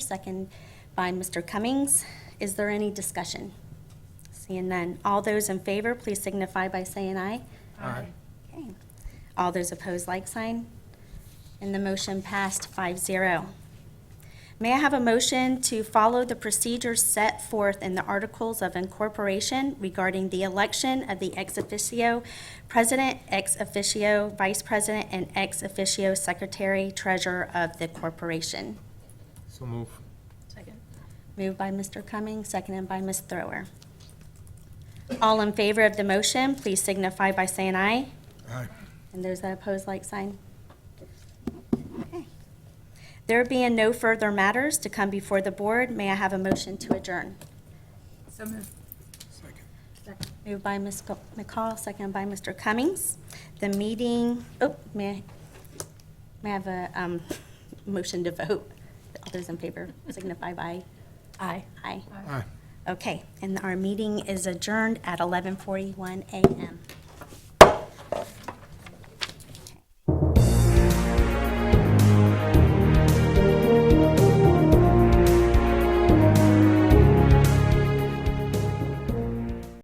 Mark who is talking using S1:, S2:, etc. S1: Second by Mr. Cummings. Is there any discussion? Seeing none. All those in favor, please signify by saying aye.
S2: Aye.
S1: Okay. All those opposed, like sign. And the motion passed 5-0. May I have a motion to follow the procedures set forth in the Articles of Incorporation regarding the election of the ex officio president, ex officio vice president, and ex officio secretary treasurer of the corporation?
S2: So move.
S3: Second.
S1: Moved by Mr. Cummings, seconded by Ms. Thrower. All in favor of the motion, please signify by saying aye.
S2: Aye.
S1: And those that oppose, like sign. Okay. There being no further matters to come before the board, may I have a motion to adjourn?
S3: So moved.
S2: Second.
S1: Moved by Ms. Co- McCall, seconded by Mr. Cummings. The meeting, oh, may, I- may I have a um, motion to vote? All those in favor signify by
S3: Aye.
S1: aye.
S2: Aye.
S1: Okay, and our meeting is adjourned at 11:41 a.m.